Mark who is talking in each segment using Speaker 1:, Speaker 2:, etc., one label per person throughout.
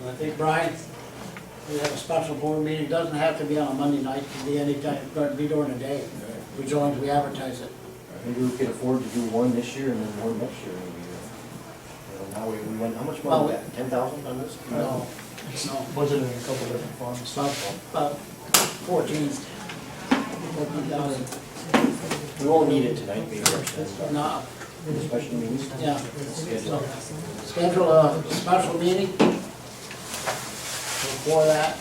Speaker 1: And I think, Brian, we have a special board meeting, It doesn't have to be on a Monday night, it can be any time, it could be during the day, as long as we advertise it.
Speaker 2: Maybe we could afford to do one this year and then one next year maybe. uh, You know, now we, we went, how much money we got? Ten thousand on this?
Speaker 1: No, no,
Speaker 3: Budgeted in a couple different funds.
Speaker 1: about, about fourteen, fourteen thousand,
Speaker 2: We won't need it tonight, maybe, our special-
Speaker 1: no,
Speaker 2: our special meetings.
Speaker 1: yeah.
Speaker 2: Schedule.
Speaker 1: Schedule a special meeting before that.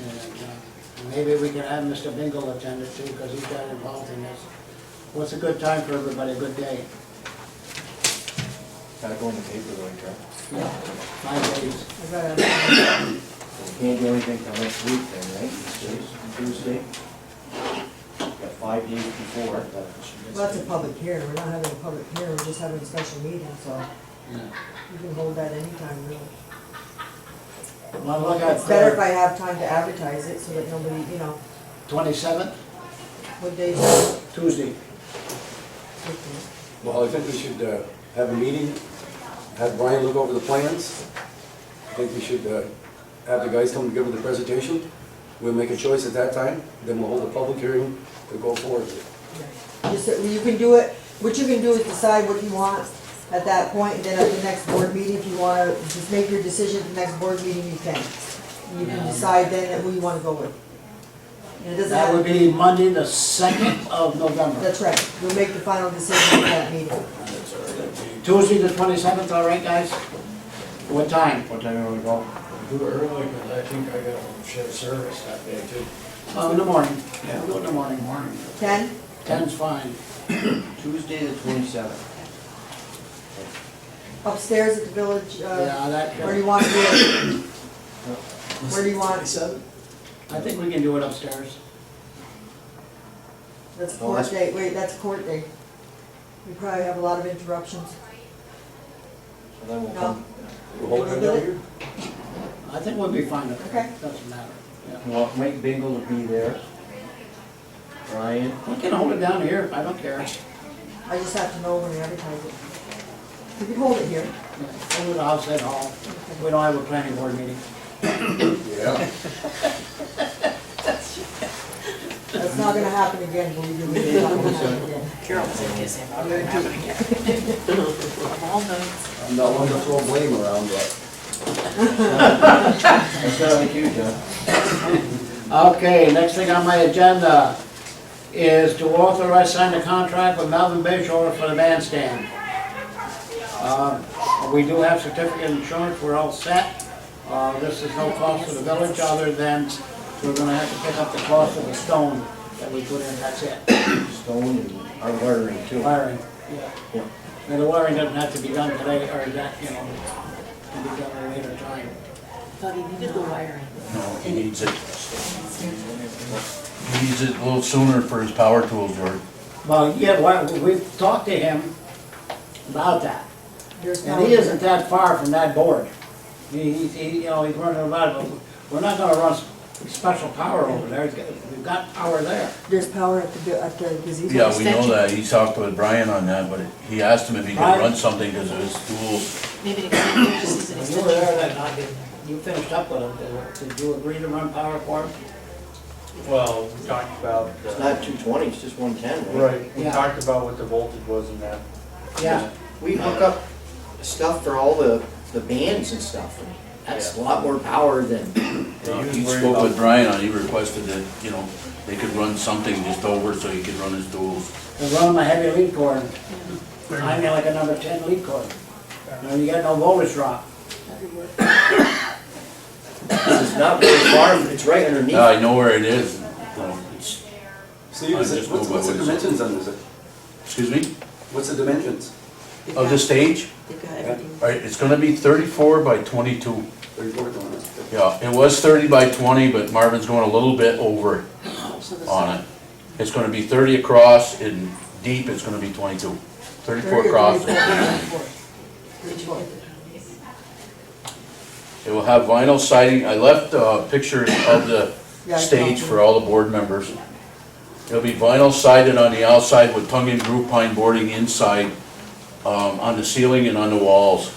Speaker 1: And uh, maybe we can have Mr. Bingle attend it too, because he's got involved in this. What's a good time for everybody, a good day?
Speaker 2: Gotta go in the paper though, Chuck.
Speaker 1: Yeah, Five days.
Speaker 2: We Can't do anything till next week then, right? Tuesday- Tuesday? Got five days before.
Speaker 4: Well, that's a public hearing, we're not having a public hearing, we're just having a special meeting, so
Speaker 1: yeah.
Speaker 4: you can hold that anytime, really.
Speaker 1: Well, look
Speaker 4: It's better if
Speaker 1: at
Speaker 4: I have time to advertise it, so that nobody, you know,
Speaker 1: twenty-seventh,
Speaker 4: what day is it?
Speaker 1: Tuesday.
Speaker 5: Well, I think we should uh, have a meeting, have Brian look over the plans. I think we should uh, have the guys come and give them the presentation. We'll make a choice at that time, then we'll hold a public hearing to go forward.
Speaker 4: Just, that you can do it, what you can do is decide what you want at that point, and then at the next board meeting, if you wanna, just make your decision at the next board meeting, you can. You can decide then who you wanna go with. And it doesn't
Speaker 1: That would
Speaker 4: have,
Speaker 1: be Monday, the second of November.
Speaker 4: that's right, you'll make the final decision at that meeting.
Speaker 1: Tuesday, the twenty-seventh, all right, guys? What time?
Speaker 2: What time are we going?
Speaker 6: Do it early, because I think I got a shift service that day too.
Speaker 4: Um,
Speaker 1: Oh, in the morning. Yeah, we'll go in the morning. Morning.
Speaker 4: Ten?
Speaker 1: Ten's fine.
Speaker 2: Tuesday the twenty-seventh.
Speaker 4: Upstairs at the village, uh,
Speaker 1: Yeah, that,
Speaker 4: where do you want to do it? Where do you want,
Speaker 1: I think we can do it upstairs.
Speaker 4: that's
Speaker 1: Oh,
Speaker 4: court day, wait, that's court day. We probably have a lot of interruptions.
Speaker 2: And then we'll come,
Speaker 5: We'll hold it down here.
Speaker 1: I think we'll be fine up there.
Speaker 4: Okay.
Speaker 1: Doesn't matter. Yeah.
Speaker 2: we want Mike Bingle to be there. Ryan,
Speaker 1: We can hold it down here, I don't care.
Speaker 4: I just have to know when we advertise it. We can hold it here.
Speaker 1: Hold it outside hall. We don't have a planning board meeting.
Speaker 5: Yeah.
Speaker 4: That's not gonna happen again, believe me. It's not gonna happen again.
Speaker 7: Carol said his name, I'm gonna have it again. Of all nights.
Speaker 5: I'm not one to throw blame around, but
Speaker 2: that's not like you, John.
Speaker 1: Okay, next thing on my agenda is to authorize sign the contract with Melvin Bayshore for the bandstand. Uh, We do have certificate of insurance, we're all set. Uh, This is no cost to the village, other than we're gonna have to pick up the cost of the stone that we put in, that's it,
Speaker 2: Stone and our wiring too.
Speaker 1: wiring.
Speaker 2: Yeah.
Speaker 1: And the wiring doesn't have to be done today, or that, you know, can be done at a later time.
Speaker 7: Thought he needed the wiring.
Speaker 8: No, he needs it. He needs it a little sooner for his power tools work.
Speaker 1: Well, yeah, why- we've talked to him about that.
Speaker 4: There's no-
Speaker 1: And he isn't that far from that board. He, he, he, you know, he's running about, but we're not gonna run special power over there, It's got- we've got power there.
Speaker 4: There's power at the, bu- at the gazebo.
Speaker 8: Yeah, we know that, he talked with Brian on that, but he asked him if he could run something because of his tools.
Speaker 7: Maybe an extension, just as an
Speaker 1: When you were there
Speaker 7: extension.
Speaker 1: that night, did- you finished up with him, did- did you agree to run power for him?
Speaker 9: Well, we talked about, uh,
Speaker 2: It's not two twenty, it's just one ten, right?
Speaker 9: right, we
Speaker 1: Yeah.
Speaker 9: talked about what the voltage was in that.
Speaker 1: Yeah,
Speaker 2: We hook up stuff for all the, the bands and stuff. and That's a lot more power than,
Speaker 9: Yeah, he
Speaker 8: He
Speaker 9: was worried
Speaker 8: spoke with
Speaker 9: about-
Speaker 8: Brian on, it, he requested that, you know, they could run something just over so he could run his tools.
Speaker 1: they run my heavy lead cord, I mean like a number ten lead cord. You know, you got no voltage drop.
Speaker 2: it's not very far, it's right underneath.
Speaker 8: Yeah, I know where it is. No, it's-
Speaker 5: Steve, is it- what's what's the dimensions on this?
Speaker 8: Excuse me?
Speaker 5: What's the dimensions?
Speaker 7: They've
Speaker 8: Of
Speaker 7: got-
Speaker 8: the stage?
Speaker 7: They've got everything.
Speaker 8: All right, it's gonna be thirty-four by twenty-two.
Speaker 5: Thirty-four, don't know.
Speaker 8: Yeah, it was thirty by twenty, but Marvin's going a little bit over
Speaker 7: So the
Speaker 8: on
Speaker 7: side-
Speaker 8: it. It's gonna be thirty across and deep, it's gonna be 22. 34
Speaker 4: Thirty or
Speaker 8: across.
Speaker 4: thirty-four. Thirty-four.
Speaker 8: It will have vinyl siding. I left, uh, pictures of the
Speaker 4: Yeah, I
Speaker 8: stage
Speaker 4: saw
Speaker 8: for all the board members. It'll be vinyl sided on the outside with tongue and groove pine boarding inside, um, on the ceiling and on the walls.